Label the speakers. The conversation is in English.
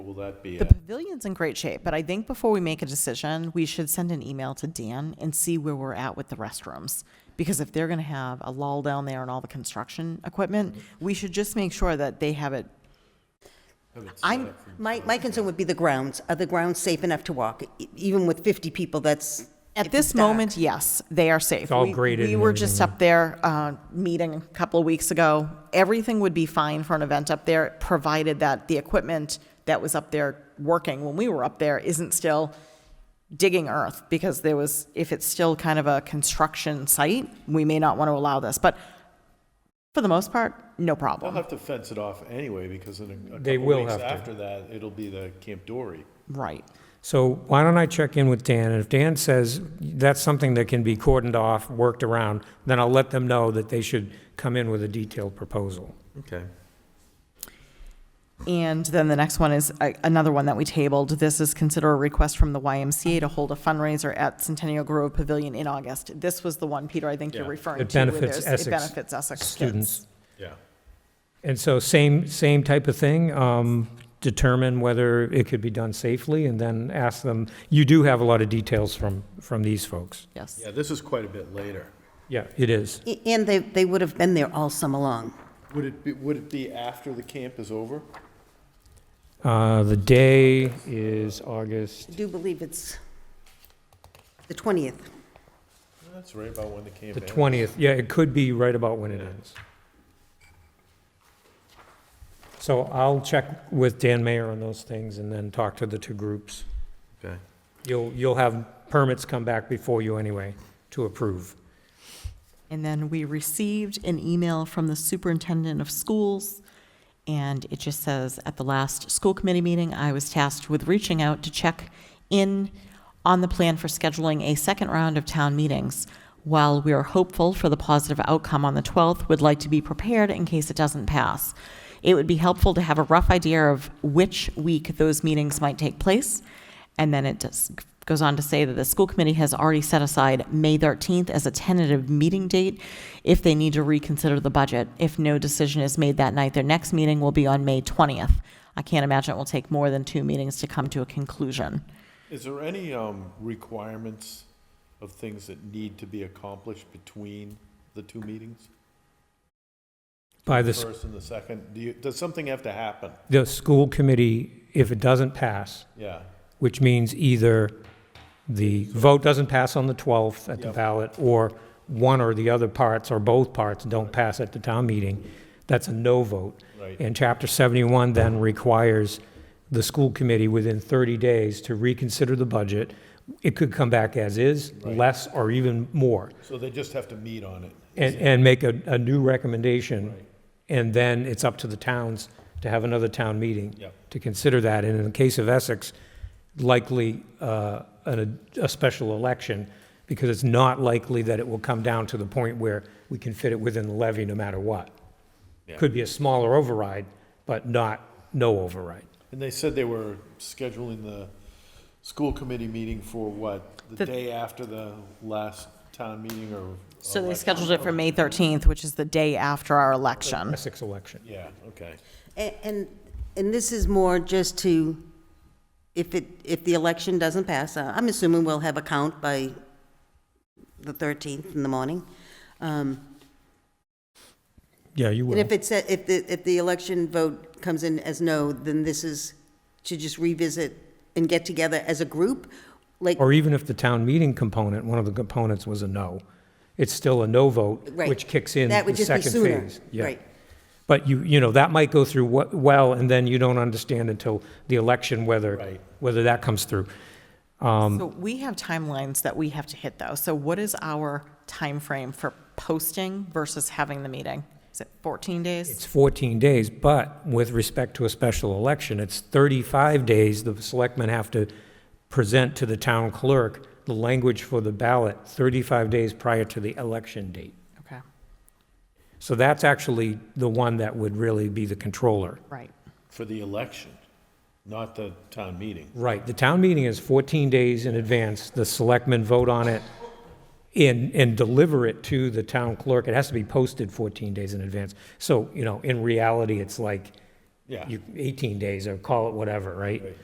Speaker 1: will that be
Speaker 2: The
Speaker 1: at?
Speaker 2: pavilion's in great shape, but I think before we make a decision, we should send an email to Dan and see where we're at with the restrooms. Because if they're gonna have a lull down there and all the construction equipment, we should just make sure that they have it.
Speaker 1: have it set
Speaker 2: I'm,
Speaker 1: up for-
Speaker 3: My, my concern would be the grounds. Are the grounds safe enough to walk? E- Even with 50 people, that's.
Speaker 2: at
Speaker 3: if
Speaker 2: this
Speaker 3: it's dark.
Speaker 2: moment, yes, they are safe.
Speaker 4: all
Speaker 2: We-
Speaker 4: graded
Speaker 2: We
Speaker 4: and
Speaker 2: were just up there, uh, meeting a couple of weeks ago. Everything would be fine for an event up there, provided that the equipment that was up there working when we were up there isn't still digging earth because there was, if it's still kind of a construction site, we may not want to allow this. But for the most part, no
Speaker 1: They'll
Speaker 2: problem.
Speaker 1: have to fence it off anyway, because in a- a
Speaker 4: They
Speaker 1: couple
Speaker 4: will
Speaker 1: weeks
Speaker 4: have to.
Speaker 1: after that, it'll be the Camp Dory.
Speaker 2: Right.
Speaker 4: So why don't I check in with Dan, and if Dan says that's something that can be cordoned off, worked around, then I'll let them know that they should come in with a detailed proposal.
Speaker 1: Okay.
Speaker 2: And then the next one is a- another one that we tabled. This is consider a request from the YMCA to hold a fundraiser at Centennial Grove Pavilion in August. This was the one, Peter, I think you're
Speaker 1: Yeah.
Speaker 2: referring
Speaker 4: It
Speaker 2: to. where
Speaker 4: benefits
Speaker 2: there's-
Speaker 4: Essex
Speaker 2: It benefits Essex
Speaker 4: students.
Speaker 2: students.
Speaker 1: Yeah.
Speaker 4: And so same, same type of thing, um, determine whether it could be done safely, and then ask them, you do have a lot of details from, from these folks.
Speaker 2: Yes.
Speaker 1: Yeah, this is quite a bit later.
Speaker 4: Yeah, it is.
Speaker 3: A- And they, they would have been there all summer long.
Speaker 1: Would it be, would it be after the camp is over?
Speaker 4: Uh, the day is August,
Speaker 3: I do believe it's the 20th.
Speaker 1: That's right about when the camp
Speaker 4: the
Speaker 1: ends.
Speaker 4: 20th, yeah, it could be right about when it ends. So I'll check with Dan Mayer on those things and then talk to the two groups.
Speaker 1: Okay.
Speaker 4: You'll, you'll have permits come back before you anyway to approve.
Speaker 2: And then we received an email from the superintendent of schools, and it just says, at the last school committee meeting, I was tasked with reaching out to check in on the plan for scheduling a second round of town meetings. While we are hopeful for the positive outcome on the 12th, would like to be prepared in case it doesn't pass. It would be helpful to have a rough idea of which week those meetings might take place. And then it just goes on to say that the school committee has already set aside May 13th as a tentative meeting date if they need to reconsider the budget. If no decision is made that night, their next meeting will be on May 20th. I can't imagine it will take more than two meetings to come to a conclusion.
Speaker 1: Is there any um, requirements of things that need to be accomplished between the two meetings?
Speaker 4: By the, s-
Speaker 1: First and the second? Do you, does something have to happen?
Speaker 4: the school committee, if it doesn't pass,
Speaker 1: Yeah.
Speaker 4: which means either the vote doesn't pass on the 12th at the
Speaker 1: Yep.
Speaker 4: ballot, or one or the other parts, or both parts don't pass at the town meeting, that's a no vote.
Speaker 1: Right.
Speaker 4: And Chapter 71 then requires the school committee within 30 days to reconsider the budget. It could come back as is, less, or even more,
Speaker 1: So they just have to meet on it?
Speaker 4: and, and make a, a new recommendation. And then it's up to the towns to have another town meeting
Speaker 1: Yep.
Speaker 4: to consider that. And in the case of Essex, likely uh, an- a special election, because it's not likely that it will come down to the point where we can fit it within the levy no matter what.
Speaker 1: Yeah.
Speaker 4: Could be a smaller override, but not, no override.
Speaker 1: And they said they were scheduling the school committee meeting for what? The
Speaker 2: The-
Speaker 1: day after the last town meeting or?
Speaker 2: So they
Speaker 1: election?
Speaker 2: scheduled it for May 13th, which is the day after our
Speaker 3: Um.
Speaker 2: election.
Speaker 4: Essex election.
Speaker 1: Yeah, okay.
Speaker 3: A- And, and this is more just to, if it, if the election doesn't pass, uh, I'm assuming we'll have a count by the 13th in the morning. Um,
Speaker 4: Yeah, you
Speaker 3: And
Speaker 4: will.
Speaker 3: if it's, if the, if the election vote comes in as no, then this is to just revisit and get together as a group, like,
Speaker 4: Or even if the town meeting component, one of the components was a no, it's still a no vote,
Speaker 3: right.
Speaker 4: which kicks in
Speaker 3: That would
Speaker 4: the
Speaker 3: just be
Speaker 4: second
Speaker 3: sooner,
Speaker 4: phase. Yeah.
Speaker 3: Right.
Speaker 4: But you, you know, that might go through wh- well, and then you don't understand until the election whether,
Speaker 1: Right.
Speaker 4: whether that comes through.
Speaker 2: So we have timelines that we have to hit, though. So what is our time frame for posting versus having the meeting? Is it 14 days?
Speaker 4: It's 14 days, but with respect to a special election, it's 35 days. The selectmen have to present to the town clerk the language for the ballot 35 days prior to the election date.
Speaker 2: Okay,
Speaker 4: So that's actually the one that would really be the controller.
Speaker 2: right.
Speaker 1: For the election, not the town meeting.
Speaker 4: Right, the town meeting is 14 days in advance, the selectmen vote on it and, and deliver it to the town clerk. It has to be posted 14 days in advance. So, you know, in reality, it's like
Speaker 1: Yeah.
Speaker 4: you- 18 days, or call it whatever, right?